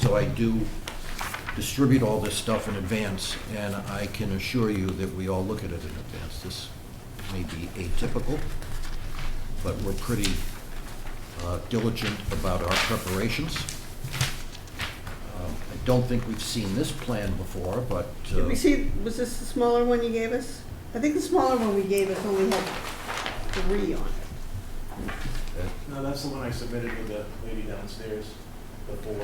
So I do distribute all this stuff in advance, and I can assure you that we all look at it in advance. This may be atypical, but we're pretty uh, diligent about our preparations. Um, I don't think we've seen this plan before, but. uh, Did we see, was this the smaller one you gave us? I think the smaller one we gave us only had three on uh, it. No, that's the one I submitted to the lady downstairs, the four.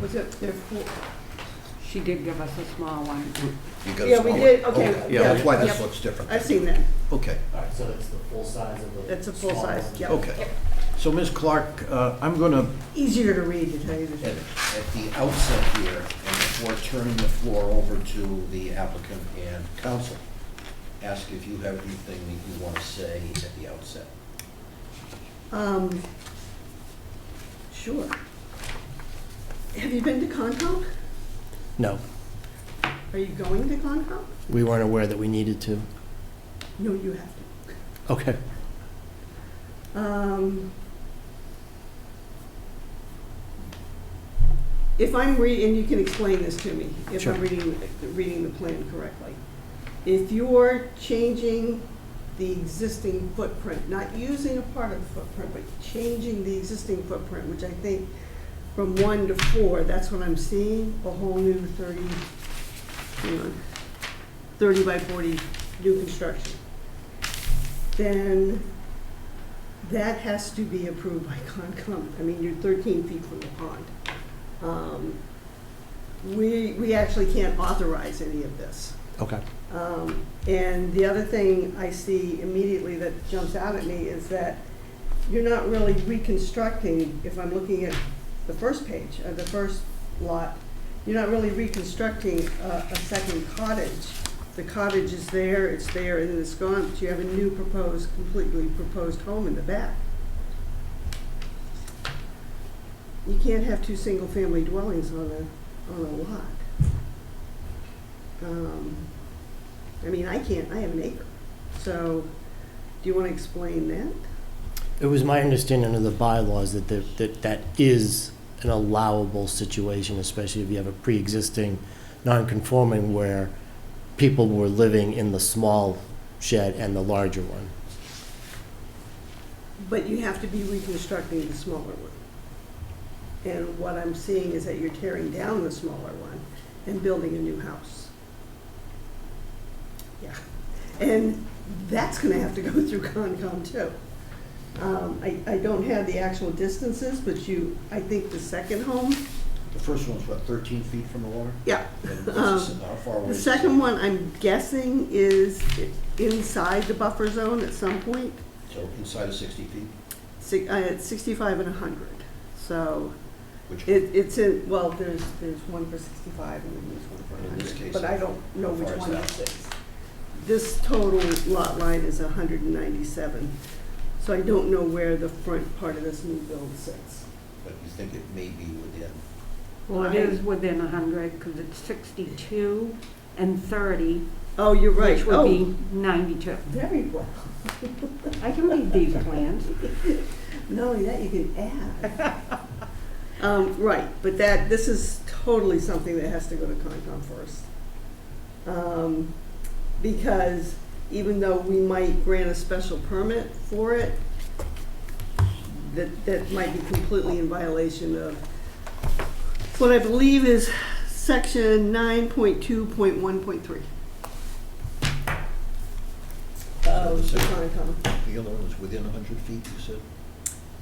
Was it, there four? She did give us a small one. You got a Yeah, we smaller- did, okay, yeah, Oh, That's why this yep. looks different. I've seen that. Okay. All right, so it's the full size of the. That's a full small size, one. yeah. Okay. So Ms. Clark, uh, I'm going to, Easier to read, to tell you the at truth. at the outset here, and before turning the floor over to the applicant and council, ask if you have anything that you want to say at the outset. Um, sure. Have you been to Concom? No, Are you going to Concom? we weren't aware that we needed to. No, you have to. Okay. Um, If I'm reading, and you can explain this to me, if Sure. I'm reading, reading the plan correctly. If you're changing the existing footprint, not using a part of the footprint, but changing the existing footprint, which I think from one to four, that's what I'm seeing, a whole new thirty, hang on, thirty by forty new construction. Then that has to be approved by Concom. I mean, you're 13 feet from the pond. Um, We, we actually can't authorize any of this. Okay. Um, And the other thing I see immediately that jumps out at me is that you're not really reconstructing, if I'm looking at the first page, uh, the first lot, you're not really reconstructing a, a second cottage. The cottage is there, it's there, and then it's gone, but you have a new proposed, completely proposed home in the back. You can't have two single-family dwellings on a, on a lot. Um, I mean, I can't, I have an acre. So, do you want to explain that? It was my understanding of the bylaws that, the- that that is an allowable situation, especially if you have a pre-existing non-conforming where people were living in the small shed and the larger one. But you have to be reconstructing the smaller one. And what I'm seeing is that you're tearing down the smaller one and building a new house. Yeah, and that's gonna have to go through Concom too. Um, I, I don't have the actual distances, but you, I think the second home, The first one's what, 13 feet from the water? yeah. And this is- How far away? Um, The is it? second one, I'm guessing, is inside the buffer zone at some point. So inside of 60 feet, Six, uh, it's sixty-five and a hundred, so which, it, it's in, well, there's, there's one for sixty-five and then there's one for a In this case, hundred, but I don't know how far which is one that? this is. This total lot line is hundred and ninety-seven, so I don't know where the front part of this new build sits. but you think it may be within. Well, it is within a hundred, because it's sixty-two and thirty, Oh, you're right, which would oh, be ninety-two. very well, I can read these plans. not only that, you can add. Um, right, but that, this is totally something that has to go to Concom first. um, because even though we might grant a special permit for it, that, that might be completely in violation of what I believe is section nine point two point one point three. Of the Concom. The other one is within 100 feet, you said?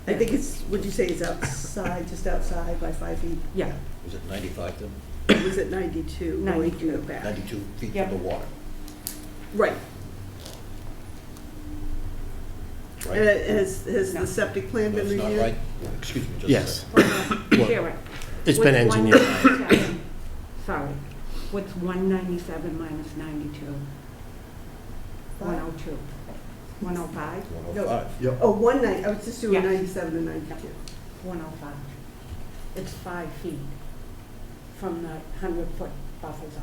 I think it's, would you say it's outside, just outside by five feet? Yeah, Was it 95 then? It was at ninety-two, going to the back. 92 feet Yep. from the water, Right, right? and it- Uh, has, has No. the septic plan No, been it's reviewed? not right? Excuse me, just a second. Yes, share it. it's been What's one engineered. 97? Sorry, what's one ninety-seven minus ninety-two? One oh two. One oh five? 105. Oh, one night, I was just doing Yeah. ninety-seven and ninety-two. One oh five. It's five feet from the hundred-foot buffer zone.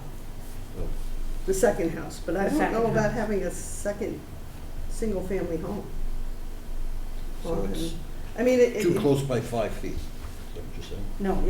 Well, The second house, but I The don't second know about house. having a second, single-family home. So on- it's I mean, it. too it- close by five feet, is that what you're saying? No,